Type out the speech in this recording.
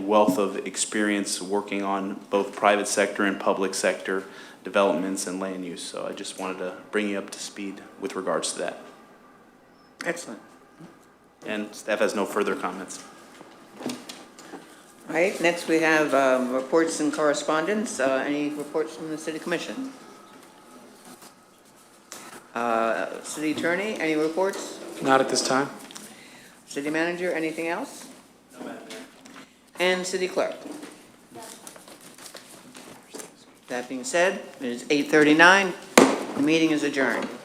wealth of experience working on both private sector and public sector developments and land use. So I just wanted to bring you up to speed with regards to that. Excellent. And staff has no further comments. All right, next we have um, reports and correspondence. Uh, Any reports from the city commission? Uh, City attorney, any reports? Not at this time. City manager, anything else? And city clerk? That being said, it is 8:39, the meeting is adjourned.